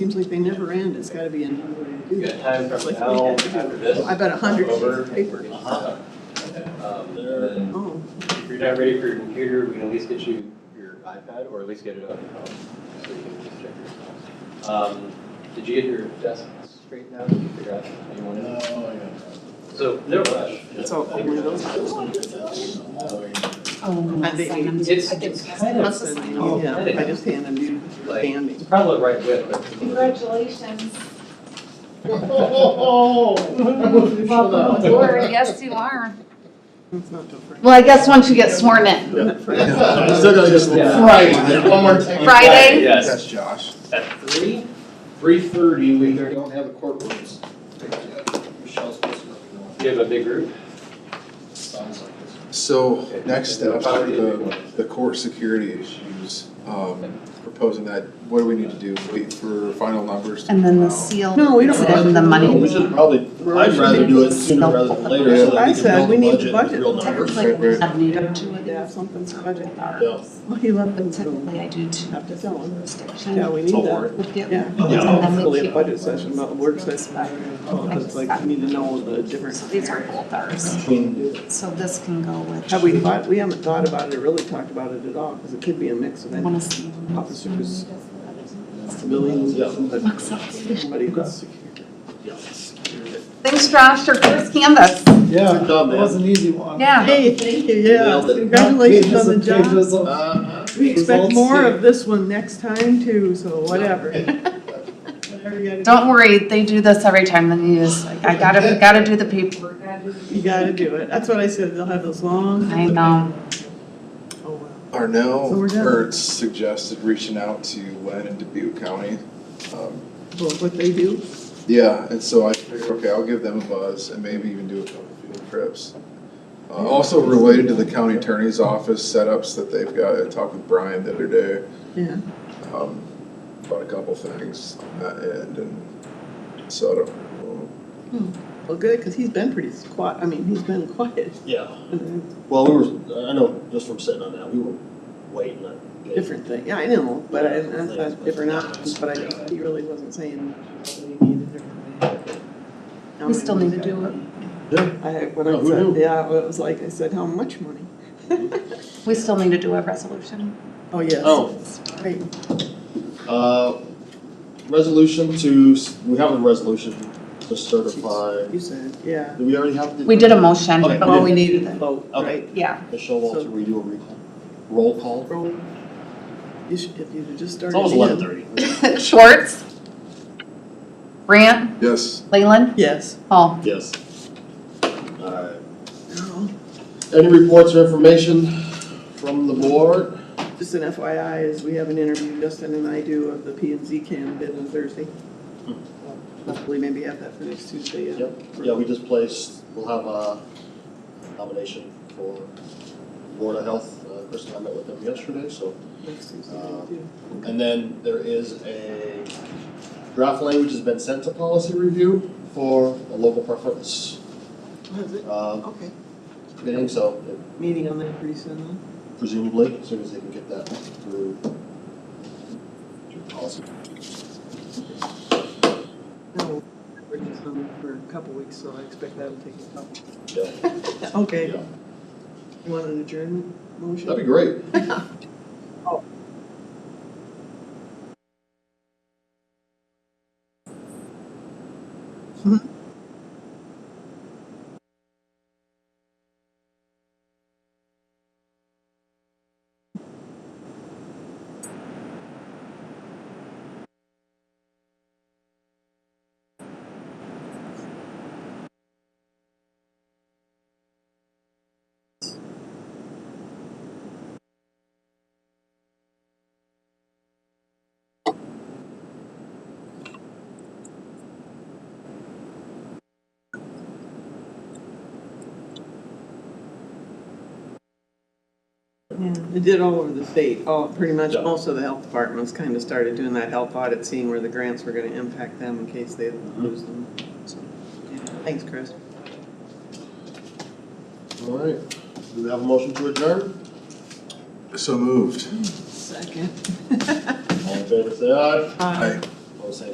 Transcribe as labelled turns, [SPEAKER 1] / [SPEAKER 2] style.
[SPEAKER 1] seems like they never end, it's gotta be another way to do
[SPEAKER 2] You
[SPEAKER 1] that.
[SPEAKER 2] got time
[SPEAKER 1] It's
[SPEAKER 2] from
[SPEAKER 1] like,
[SPEAKER 2] now
[SPEAKER 1] we had to
[SPEAKER 2] after
[SPEAKER 1] do
[SPEAKER 2] this?
[SPEAKER 1] it. I bet a hundred sheets
[SPEAKER 2] over?
[SPEAKER 1] of paper.
[SPEAKER 2] Uh-huh. Um, and then
[SPEAKER 1] Oh,
[SPEAKER 2] if you're not ready for your computer, we can at least get you your iPad or at least get it on your phone. So you can just check your files. Um, did you get your desk straightened out? Did you figure out how you wanted it? So no rush.
[SPEAKER 1] it's all over those.
[SPEAKER 3] Oh,
[SPEAKER 1] I think
[SPEAKER 3] sign 'em.
[SPEAKER 2] It's, it's kind of,
[SPEAKER 1] That's the- Yeah, I just hand them you
[SPEAKER 2] Like-
[SPEAKER 1] banding.
[SPEAKER 2] it's probably the right width, but.
[SPEAKER 4] Congratulations.
[SPEAKER 3] Welcome
[SPEAKER 5] Well,
[SPEAKER 3] aboard. Yes, you are.
[SPEAKER 1] It's not too far.
[SPEAKER 3] Well, I guess once you get sworn in.
[SPEAKER 5] I'm still gonna just
[SPEAKER 2] Yeah.
[SPEAKER 5] Friday, one more time.
[SPEAKER 3] Friday?
[SPEAKER 2] Yes,
[SPEAKER 5] That's Josh.
[SPEAKER 2] at three?
[SPEAKER 5] Three thirty, we don't have the courtrooms. Michelle's supposed to go.
[SPEAKER 2] Do you have a big group?
[SPEAKER 5] Sounds like this.
[SPEAKER 6] So,
[SPEAKER 2] Okay.
[SPEAKER 6] next step,
[SPEAKER 2] Probably a big
[SPEAKER 6] the,
[SPEAKER 2] one.
[SPEAKER 6] the court security issues, um, proposing that, what do we need to do, wait for final numbers? to
[SPEAKER 3] And then
[SPEAKER 6] come
[SPEAKER 3] the
[SPEAKER 6] out?
[SPEAKER 3] seal.
[SPEAKER 1] No, we don't
[SPEAKER 3] and
[SPEAKER 1] have
[SPEAKER 3] then the
[SPEAKER 1] to.
[SPEAKER 3] money.
[SPEAKER 7] We should probably, I'd rather do it sooner rather than later so that
[SPEAKER 1] I
[SPEAKER 7] we
[SPEAKER 1] said
[SPEAKER 7] can
[SPEAKER 1] we need
[SPEAKER 7] build
[SPEAKER 1] the
[SPEAKER 7] the budget,
[SPEAKER 1] budget.
[SPEAKER 7] with real numbers.
[SPEAKER 3] Technically,
[SPEAKER 6] Right, right.
[SPEAKER 3] I need two of
[SPEAKER 1] Yeah,
[SPEAKER 3] these.
[SPEAKER 1] something's budget.
[SPEAKER 7] Yeah.
[SPEAKER 1] Well, he let them
[SPEAKER 3] But
[SPEAKER 1] go.
[SPEAKER 3] Technically, I do two.
[SPEAKER 1] Have to tell them.
[SPEAKER 3] jurisdictions.
[SPEAKER 1] Yeah, we need
[SPEAKER 7] I'll
[SPEAKER 1] that.
[SPEAKER 7] work.
[SPEAKER 3] With the other
[SPEAKER 1] Yeah.
[SPEAKER 3] ones,
[SPEAKER 7] Yeah.
[SPEAKER 3] and then we
[SPEAKER 1] Really a
[SPEAKER 3] keep-
[SPEAKER 1] budget session, not a work session. Oh, It's like, we need to know the difference.
[SPEAKER 3] So these are both ours. So this can go with.
[SPEAKER 1] Have we thought, we haven't thought about it, or really talked about it at all, because it could be a mix of
[SPEAKER 3] Want
[SPEAKER 1] any
[SPEAKER 3] to see.
[SPEAKER 1] officers, civilians, somebody that's
[SPEAKER 3] Thanks, Josh, your first canvas.
[SPEAKER 7] Yeah,
[SPEAKER 5] Good job, man.
[SPEAKER 7] an easy one.
[SPEAKER 3] Yeah.
[SPEAKER 1] Hey, thank you, yeah, congratulations on the job.
[SPEAKER 5] Uh-huh.
[SPEAKER 1] We expect
[SPEAKER 7] results
[SPEAKER 1] more
[SPEAKER 7] here.
[SPEAKER 1] of this one next time too, so whatever. Whatever you gotta
[SPEAKER 3] Don't worry, they do this every time, then you just, like, I gotta, gotta do the paperwork.
[SPEAKER 1] do, you gotta do it, that's what I said, they'll have those long.
[SPEAKER 3] I know.
[SPEAKER 1] Oh, wow. So we're
[SPEAKER 6] Arnell
[SPEAKER 1] done.
[SPEAKER 6] Ertz suggested reaching out to Wen and Dubuque County. Um,
[SPEAKER 1] Well, what they do,
[SPEAKER 6] Yeah, and so I figured, okay, I'll give them a buzz and maybe even do a couple field trips. Uh, Also related to the county attorney's office setups that they've got, I talked with Brian the other day
[SPEAKER 1] yeah,
[SPEAKER 6] um, about a couple things on that end and uh, so I don't know.
[SPEAKER 1] well, good, because he's been pretty quiet, I mean, he's been quiet.
[SPEAKER 7] Yeah,
[SPEAKER 1] And
[SPEAKER 7] well, we were, I know, just from sitting on that, we were waiting on.
[SPEAKER 1] a Different thing, yeah, I know, but I, I thought different options, but I, he really wasn't saying much what he needed or.
[SPEAKER 3] We still need to do it.
[SPEAKER 7] Yeah.
[SPEAKER 1] I, when
[SPEAKER 7] Oh,
[SPEAKER 1] I
[SPEAKER 7] who
[SPEAKER 1] said,
[SPEAKER 7] knew?
[SPEAKER 1] yeah, it was like, I said, how much money?
[SPEAKER 3] We still need to do a resolution.
[SPEAKER 1] Oh, yes.
[SPEAKER 7] Oh.
[SPEAKER 1] Right.
[SPEAKER 7] Uh, resolution to, we have a resolution to certify,
[SPEAKER 1] You said, yeah.
[SPEAKER 7] do we already have? the-
[SPEAKER 3] We did a motion,
[SPEAKER 7] Okay.
[SPEAKER 3] but we
[SPEAKER 1] Well,
[SPEAKER 3] needed it.
[SPEAKER 1] Vote,
[SPEAKER 7] Oh, Okay.
[SPEAKER 1] right?
[SPEAKER 3] Yeah,
[SPEAKER 7] Michelle Walter, we do a recall, roll call.
[SPEAKER 1] Roll. You should, if you just started.
[SPEAKER 7] It's almost
[SPEAKER 1] in.
[SPEAKER 7] eleven thirty.
[SPEAKER 3] Schwartz. Grant,
[SPEAKER 6] Yes,
[SPEAKER 3] Leyland,
[SPEAKER 1] Yes.
[SPEAKER 3] Hall.
[SPEAKER 7] Yes. Alright.
[SPEAKER 1] No,
[SPEAKER 7] Any reports or information from the board?
[SPEAKER 1] Just an FYI, is we have an interview, Justin and I do of the P and Z candidate on Thursday. Hopefully maybe have that for next Tuesday, yeah.
[SPEAKER 7] Hmm. Yep, yeah, we just placed, we'll have a nomination for Board of Health, uh, Chris and I met with them yesterday, so.
[SPEAKER 1] Next Tuesday,
[SPEAKER 7] Uh,
[SPEAKER 1] yeah.
[SPEAKER 7] And then there is a draft language has been sent to policy review for a local preference,
[SPEAKER 1] What is it?
[SPEAKER 7] uh,
[SPEAKER 1] Okay,
[SPEAKER 7] meeting, so
[SPEAKER 1] meeting on that pretty soon, huh?
[SPEAKER 7] presumably, as soon as they can get that through. through Policy.
[SPEAKER 1] No, we're just on for a couple weeks, so I expect that'll take a couple.
[SPEAKER 7] Yeah,
[SPEAKER 1] Okay,
[SPEAKER 7] yeah,
[SPEAKER 1] you want an adjournment motion?
[SPEAKER 7] that'd be great.
[SPEAKER 1] Yeah, it did all over the state, all, pretty much,
[SPEAKER 7] Yeah.
[SPEAKER 1] most of the health departments kind of started doing that health audit, seeing where the grants were gonna impact them in case they lose them. So, yeah. Thanks, Chris.
[SPEAKER 7] All right, do we have a motion to adjourn?
[SPEAKER 6] so moved.
[SPEAKER 1] Second.
[SPEAKER 7] All in favor, say aye.
[SPEAKER 6] Aye.